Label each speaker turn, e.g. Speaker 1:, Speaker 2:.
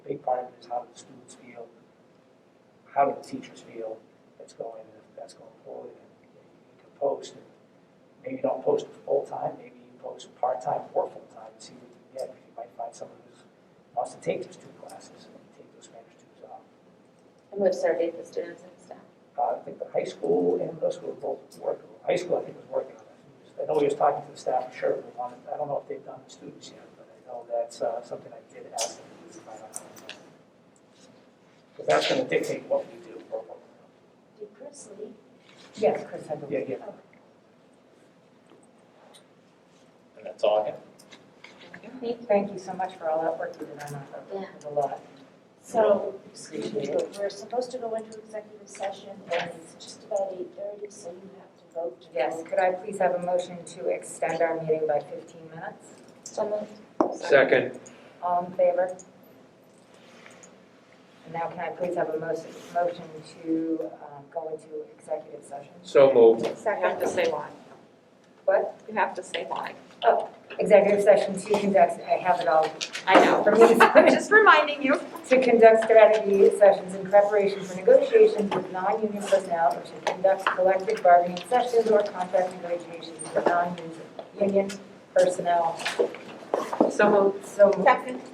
Speaker 1: big part of it is how do the students feel, how do the teachers feel that's going, that's going forward. And You can post, and maybe don't post it full-time, maybe you post part-time or full-time, and see what you get. You might find someone who's wants to take those two classes and take those Spanish twos off.
Speaker 2: And we've surveyed the students and staff.
Speaker 1: Uh, I think the high school and middle school both work, high school, I think, was working on it. I know he was talking to the staff, sure, we wanted, I don't know if they've done the students yet, but I know that's uh, something I did ask them to do, if I don't know. Because that's gonna dictate what we do. or what we
Speaker 3: Did Chris leave?
Speaker 4: Yes, Chris, I
Speaker 1: don't. Yeah,
Speaker 4: believe.
Speaker 1: yeah.
Speaker 5: And that's all I have.
Speaker 4: Pete, Thank you so much for all that work you did on that.
Speaker 2: Yeah.
Speaker 4: It was a lot.
Speaker 3: So, excuse me,
Speaker 4: Appreciate it.
Speaker 3: but we're supposed to go into executive session and it's just about eight thirty, so you have to vote to go.
Speaker 4: Yes, could I please have a motion to extend our meeting by 15 minutes?
Speaker 2: So moved.
Speaker 6: Second.
Speaker 4: All in favor? And now can I please have a mo- motion to um, go into executive session?
Speaker 6: So moved.
Speaker 2: Second.
Speaker 7: You have to say why.
Speaker 4: What?
Speaker 7: You have to say why.
Speaker 4: Oh, Executive session to conduct, I have it all
Speaker 7: I know.
Speaker 4: for me.
Speaker 7: I'm just reminding you.
Speaker 4: to conduct strategy sessions in preparation for negotiations with non-union personnel, or to conduct collective bargaining sessions or contract negotiations with non-union personnel.
Speaker 7: So moved.
Speaker 4: So moved.
Speaker 7: Second.